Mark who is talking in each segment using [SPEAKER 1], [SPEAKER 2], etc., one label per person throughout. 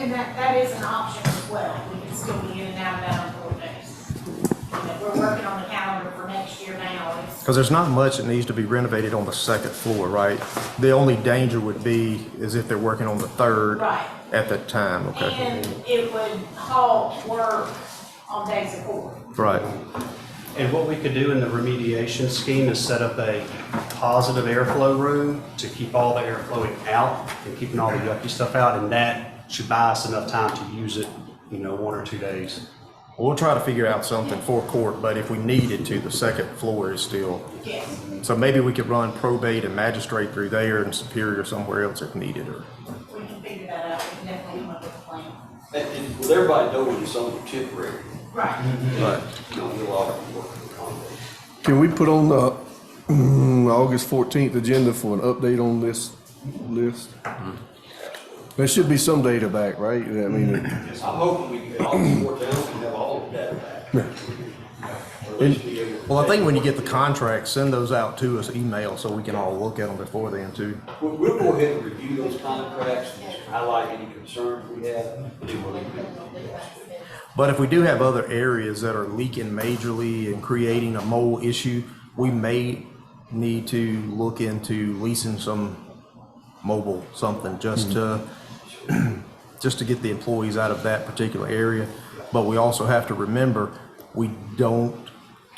[SPEAKER 1] And that, that is an option as well, we can still be in and out of that on four days. You know, We're working on the calendar for next year now, it's,
[SPEAKER 2] Because there's not much that needs to be renovated on the second floor, right? The only danger would be is if they're working on the third
[SPEAKER 1] Right.
[SPEAKER 2] at that time, okay?
[SPEAKER 1] and it would halt work on days of court.
[SPEAKER 2] Right,
[SPEAKER 3] And what we could do in the remediation scheme is set up a positive airflow room to keep all the air flowing out and keeping all the yucky stuff out, and that should buy us enough time to use it, you know, one or two days.
[SPEAKER 2] we'll try to figure out something for court, but if we needed to, the second floor is still.
[SPEAKER 1] Yes,
[SPEAKER 2] So maybe we could run probate and magistrate through there and superior somewhere else if needed, or,
[SPEAKER 1] we can figure that out, we can definitely come up with a plan.
[SPEAKER 4] And, and well, everybody knows it's something temporary,
[SPEAKER 1] Right,
[SPEAKER 4] Mm-hmm.
[SPEAKER 2] but
[SPEAKER 4] you know, we'll all work with accommodate.
[SPEAKER 5] Can we put on the mm, August 14th agenda for an update on this list? There should be some data back, right? I mean,
[SPEAKER 4] I'm hoping we can, all four towns can have all of that back. Or at least be able to-
[SPEAKER 2] Well, I think when you get the contracts, send those out to us email so we can all look at them before then too.
[SPEAKER 4] We'll, we'll go ahead and review those contracts, and highlight any concerns we have, and then we'll leave it.
[SPEAKER 2] But if we do have other areas that are leaking majorly and creating a mold issue, we may need to look into leasing some mobile something just to, just to get the employees out of that particular area. But we also have to remember, we don't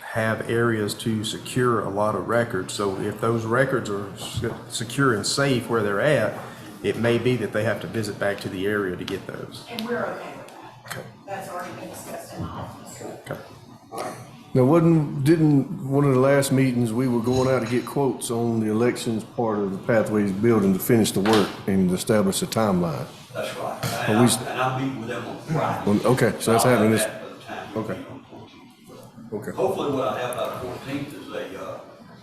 [SPEAKER 2] have areas to secure a lot of records. So if those records are se- secure and safe where they're at, it may be that they have to visit back to the area to get those.
[SPEAKER 1] and we're okay with that. That's already been discussed in the office.
[SPEAKER 2] Okay.
[SPEAKER 5] now, wasn't, didn't, one of the last meetings, we were going out to get quotes on the elections part of the Pathways building to finish the work and establish a timeline.
[SPEAKER 4] That's right.
[SPEAKER 5] But
[SPEAKER 4] And
[SPEAKER 5] we-
[SPEAKER 4] I- and I'll meet with them on Friday.
[SPEAKER 5] Well, Okay, so that's
[SPEAKER 4] I'll have
[SPEAKER 5] happening this,
[SPEAKER 4] that by the time we
[SPEAKER 5] okay.
[SPEAKER 4] meet on 14th.
[SPEAKER 5] okay.
[SPEAKER 4] Hopefully what I have by fourteenth is a, uh,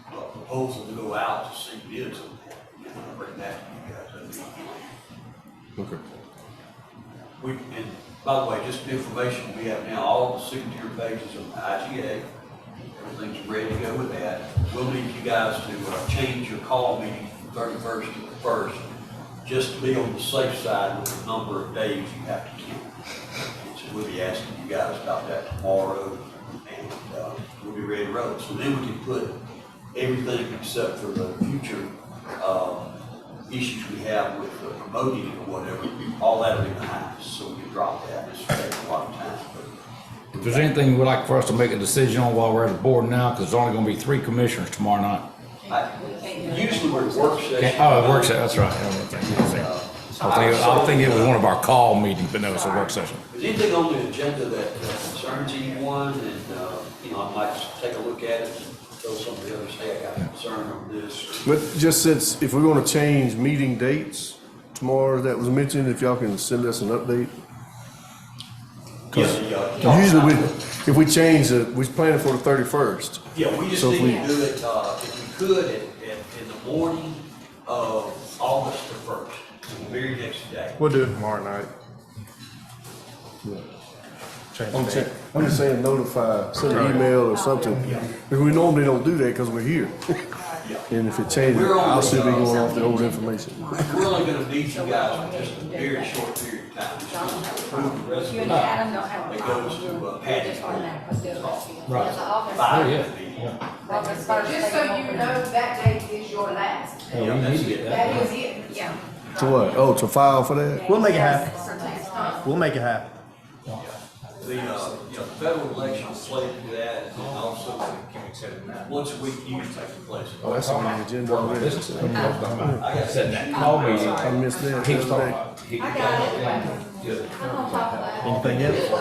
[SPEAKER 4] a proposal to go out to see bids on that. And I'll bring that to you guys. That'd be fine.
[SPEAKER 5] Okay.
[SPEAKER 4] We, and by the way, just the information we have now, all the signature pages of the IGA, everything's ready to go with that. We'll need you guys to uh, change your call meeting from thirty-first to the first, just to be on the safe side with the number of days you have to keep. And So we'll be asking you guys about that tomorrow, and uh, we'll be ready to roll. So then we can put everything except for the future uh, issues we have with the promoting or whatever, all that'll be behind us, so we can drop that, it's taking a lot of time.
[SPEAKER 6] If there's anything you would like for us to make a decision on while we're at the board now, because there's only gonna be three commissioners tomorrow night.
[SPEAKER 4] but I- Usually we're at work
[SPEAKER 6] Okay,
[SPEAKER 4] session.
[SPEAKER 6] Oh, it works out, that's right. I don't think it was there. I think- I think it was one of our call meetings, but no, it's a work session.
[SPEAKER 4] Is anything on the agenda that uh, concerns anyone, and, uh, you know, I might just take a look at it, and tell somebody else, hey, I got a concern on this.
[SPEAKER 5] But just since, if we're gonna change meeting dates tomorrow that was mentioned, if y'all can send us an update.
[SPEAKER 4] Yeah,
[SPEAKER 5] Usually, we, if we change it, we planning for the thirty-first.
[SPEAKER 4] Yeah, we just
[SPEAKER 5] So if
[SPEAKER 4] need to do it, uh, if we could, at, at, in the morning of August the first, the very next day.
[SPEAKER 2] We'll do it tomorrow night. Change
[SPEAKER 5] I'm
[SPEAKER 2] the
[SPEAKER 5] saying,
[SPEAKER 2] date.
[SPEAKER 5] I'm just saying notify, send an email or something. Because we normally don't do that because we're here. And if it changes,
[SPEAKER 4] We're on
[SPEAKER 5] I'll
[SPEAKER 4] the,
[SPEAKER 5] still be
[SPEAKER 4] uh,
[SPEAKER 5] going off the old information.
[SPEAKER 4] We're only gonna need you guys for just a very short period of time. Just gonna approve the rest
[SPEAKER 7] You
[SPEAKER 4] of
[SPEAKER 7] and
[SPEAKER 4] it.
[SPEAKER 7] Adam don't have a
[SPEAKER 4] It
[SPEAKER 7] problem.
[SPEAKER 4] goes to, uh,
[SPEAKER 7] We're just on that, let's do it. Yeah, the office-
[SPEAKER 4] Five.
[SPEAKER 6] Oh, yeah,
[SPEAKER 7] office first,
[SPEAKER 8] Just so
[SPEAKER 7] second
[SPEAKER 8] you
[SPEAKER 7] one.
[SPEAKER 8] know, that date is your last.
[SPEAKER 4] Yeah, that's it.
[SPEAKER 8] That is it. Yeah.
[SPEAKER 5] To what? Oh, to file for that?
[SPEAKER 2] We'll make it happen.
[SPEAKER 8] Sometimes, huh?
[SPEAKER 2] We'll make it happen.
[SPEAKER 4] The, uh, you know, federal election is slated to that, and also, once a week, you can take the place.
[SPEAKER 5] Oh, that's on the agenda already.
[SPEAKER 4] I got
[SPEAKER 6] Said that call meeting.
[SPEAKER 5] I missed that.
[SPEAKER 6] He was talking about- he-
[SPEAKER 7] I got it. I'm on top of that.
[SPEAKER 2] Anything else?
[SPEAKER 4] I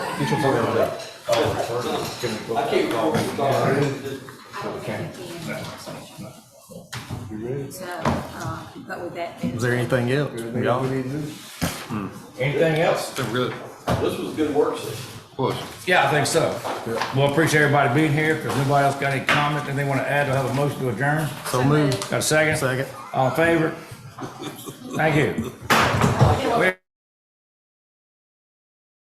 [SPEAKER 4] can't call it, sorry.
[SPEAKER 7] I don't think he can. So, uh, but with that.
[SPEAKER 2] Is there anything else?
[SPEAKER 5] Everything
[SPEAKER 2] Y'all?
[SPEAKER 5] we need to do.
[SPEAKER 6] Anything else?
[SPEAKER 4] This was a good work session.
[SPEAKER 6] Yeah, I think so. Well, appreciate everybody being here. If there's anybody else got any comments, and they wanna add, I'll have a motion to adjourn.
[SPEAKER 2] So moved.
[SPEAKER 6] Got a second?
[SPEAKER 2] Second.
[SPEAKER 6] All in favor? Thank you.